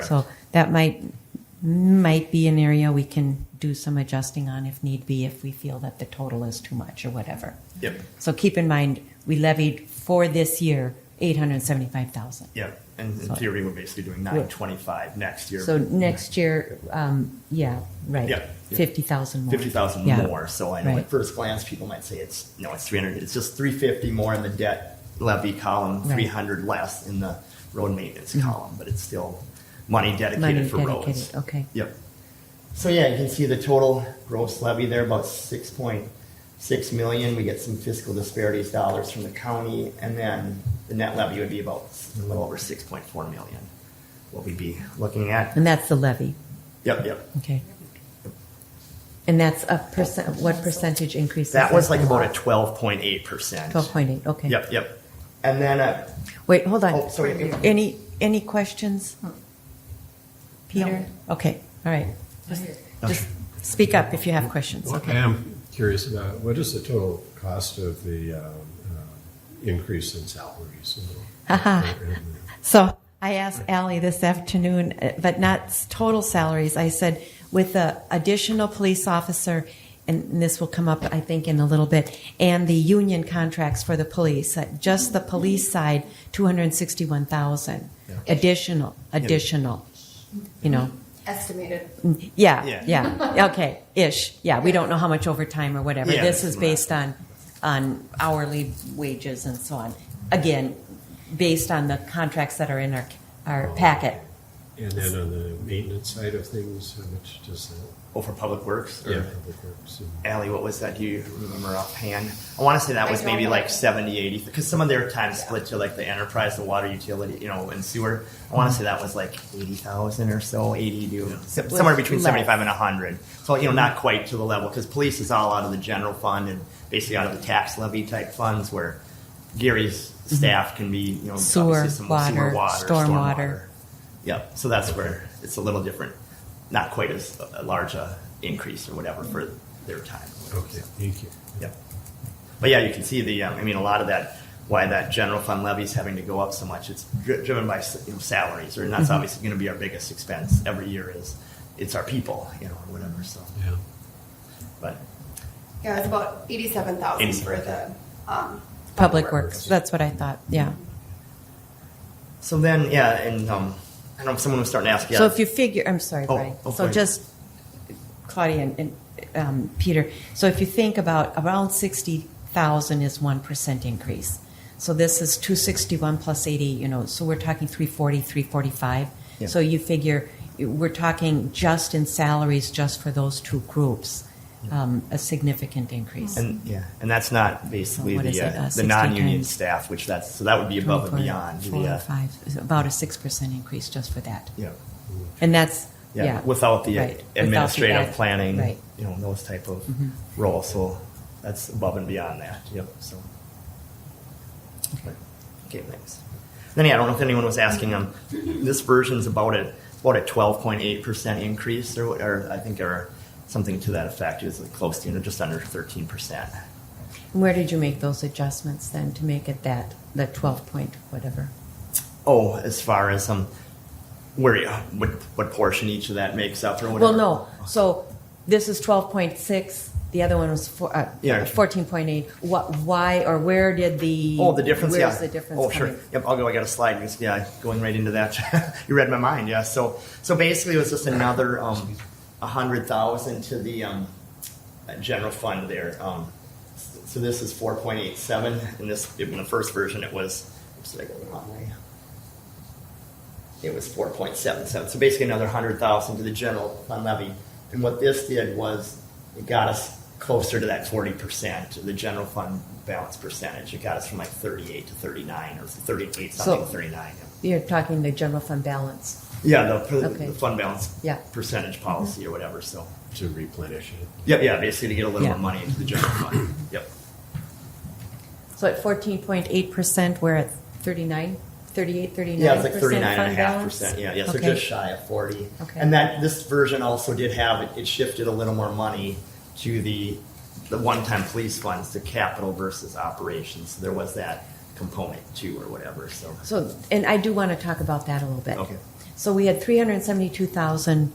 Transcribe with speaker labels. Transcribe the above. Speaker 1: So that might, might be an area we can do some adjusting on if need be, if we feel that the total is too much or whatever.
Speaker 2: Yep.
Speaker 1: So keep in mind, we levied for this year, eight hundred and seventy-five thousand.
Speaker 2: Yep, and in
Speaker 1: So-
Speaker 2: theory, we're basically doing nine twenty-five next year.
Speaker 1: So next year, um, yeah, right.
Speaker 2: Yeah.
Speaker 1: Fifty thousand more.
Speaker 2: Fifty thousand
Speaker 1: Yeah.
Speaker 2: more, so I know
Speaker 1: Right.
Speaker 2: at first glance, people might say it's, no, it's three hundred, it's just three fifty more in the debt levy column,
Speaker 1: Right. Mm-hmm.
Speaker 2: three hundred less in the road maintenance column, but it's still money
Speaker 1: Money
Speaker 2: dedicated for roads.
Speaker 1: dedicated, okay.
Speaker 2: Yep. So yeah, you can see the total gross levy there, about six point six million. We get some fiscal disparities dollars from the county, and then the net levy would be about a little over six point four million. What we'd be looking at.
Speaker 1: And that's the levy,
Speaker 2: Yep, yep.
Speaker 1: okay. And that's a percent, what percentage increase? is
Speaker 2: That was like about a twelve point eight percent.
Speaker 1: Twelve point eight, okay.
Speaker 2: Yep, yep. And then uh,
Speaker 1: Wait, hold on.
Speaker 2: Oh, sorry.
Speaker 1: Any, any questions?
Speaker 3: Hmm.
Speaker 1: Peter? Okay, all right. Just- Just speak up if you have questions.
Speaker 3: What I am curious about, what is the total cost of the um, uh, increase in salaries?
Speaker 1: Haha. So I asked Ally this afternoon, uh, but not s- total salaries. I said with the additional police officer, and this will come up, I think, in a little bit, and the union contracts for the police, uh, just the police side, two hundred sixty-one thousand
Speaker 3: Yeah.
Speaker 1: additional, additional. You know,
Speaker 4: Estimated.
Speaker 1: yeah,
Speaker 2: Yeah.
Speaker 1: yeah, okay, ish. Yeah, we don't know how much overtime or whatever.
Speaker 2: Yeah,
Speaker 1: this
Speaker 2: that's
Speaker 1: is based on on hourly wages and so on. Again, based on the contracts that are in our our packet.
Speaker 3: And then on the maintenance side of things, how much does that?
Speaker 2: oh, for public works. or-
Speaker 3: Public works and-
Speaker 2: Allie, what was that? Do you remember offhand? I want to say that
Speaker 4: I
Speaker 2: was maybe
Speaker 4: don't
Speaker 2: like
Speaker 4: know.
Speaker 2: 70, 80, because some of their time split to like the enterprise, the water utility, you know, and sewer. I want to say that was like 80,000 or so, 80 to so- somewhere between
Speaker 1: less.
Speaker 2: 75 and 100. So, you know, not quite to the level because police is all out of the general fund and basically out of the tax levy type funds where Gary's staff can be, you know,
Speaker 1: Sewer,
Speaker 2: obviously some
Speaker 1: water,
Speaker 2: sewer water,
Speaker 1: stormwater.
Speaker 2: Yep. So that's where it's a little different. Not quite as a large a increase or whatever for their time.
Speaker 3: Okay, thank you.
Speaker 2: Yep. But yeah, you can see the, um, I mean, a lot of that, why that general fund levy is having to go up so much. It's dri- driven by s- you know, salaries, or and
Speaker 3: Mm-hmm.
Speaker 2: that's obviously going to be our biggest expense every year is, it's our people, you know, or whatever, so.
Speaker 3: Yeah.
Speaker 2: But,
Speaker 4: Yeah, it's about eighty-seven thousand for the, um.
Speaker 1: Public works. That's what I thought. Yeah.
Speaker 2: so then, yeah, and, um, I don't know, someone was starting to ask, yeah.
Speaker 1: So if you figure, I'm sorry,
Speaker 2: Oh,
Speaker 1: Brian.
Speaker 2: oh, go
Speaker 1: so
Speaker 2: ahead.
Speaker 1: just Claudia and, and um, Peter. So if you think about around sixty thousand is one percent increase. So this is two sixty one plus eighty. You know, so we're talking 340, 345.
Speaker 2: Yeah.
Speaker 1: So you figure we're talking just in salaries just for those two groups, um, a significant increase.
Speaker 2: And, yeah, and that's not basically
Speaker 1: what is
Speaker 2: the,
Speaker 1: it, uh,
Speaker 2: uh, the
Speaker 1: 60
Speaker 2: non-union
Speaker 1: times-
Speaker 2: staff, which that's, so that would be above and
Speaker 1: 24,
Speaker 2: beyond the,
Speaker 1: four or
Speaker 2: uh,
Speaker 1: five, is about a six percent increase just for that.
Speaker 2: yeah.
Speaker 1: And that's
Speaker 2: Yeah,
Speaker 1: yeah,
Speaker 2: without the
Speaker 1: right, without the
Speaker 2: administrative
Speaker 1: ad-
Speaker 2: planning,
Speaker 1: right? Mm-hmm.
Speaker 2: you know, those type of roles. So that's above and beyond that. Yep. So. Okay, thanks. Then yeah, I don't know if anyone was asking. Um, this version's about a about a twelve point eight percent increase, or, what- or I think, or something to that effect. It's like close to you know, just under thirteen percent.
Speaker 1: Where did you make those adjustments then to make it that, the 12 point whatever?
Speaker 2: Oh, as far as um, where you- what what portion each of that makes up, or
Speaker 1: Well,
Speaker 2: whatever.
Speaker 1: no, so this is 12.6, the other one was four- uh,
Speaker 2: Yeah.
Speaker 1: 14.8. What, why, or where did the?
Speaker 2: Oh, the difference. yeah.
Speaker 1: Where's the difference
Speaker 2: Oh, sure.
Speaker 1: coming?
Speaker 2: Yep. I'll go. I got a slide. It's- Yeah, going right into that. you read my mind. Yeah. So, so basically, it was just another um, a hundred thousand to the um, uh, general fund there. Um, s- so this is four point eight seven, and this in the first version it was. Oops, did I go the wrong way? It was four point seven seven. So basically, another hundred thousand to the general fund levy. And what this did was it got us closer to that forty percent, the general fund balance percentage. It got us from like thirty-eight to thirty-nine or thirty-eight something,
Speaker 1: So-
Speaker 2: thirty-nine.
Speaker 1: You're talking the general fund balance.
Speaker 2: Yeah, the, per-
Speaker 1: Okay.
Speaker 2: the fund balance
Speaker 1: Yeah. Mm-hmm.
Speaker 2: percentage policy or whatever. So,
Speaker 3: To replenish it.
Speaker 2: yep, yeah, basically to get a little
Speaker 1: Yeah.
Speaker 2: more money into the general fund. Yep.
Speaker 1: So at 14.8%, we're at 39, 38, 39%?
Speaker 2: Yeah, it's like thirty-nine and a
Speaker 1: fund
Speaker 2: half
Speaker 1: balance?
Speaker 2: percent, yeah, yeah, so
Speaker 1: Okay.
Speaker 2: just shy of forty.
Speaker 1: Okay.
Speaker 2: And that, this version also did have, it- it shifted a little more money to the, the one-time police funds, to capital versus operations, so there was that component too, or whatever, so.
Speaker 1: So, and I do want to talk about that a little bit.
Speaker 2: Okay.
Speaker 1: So we had 372,000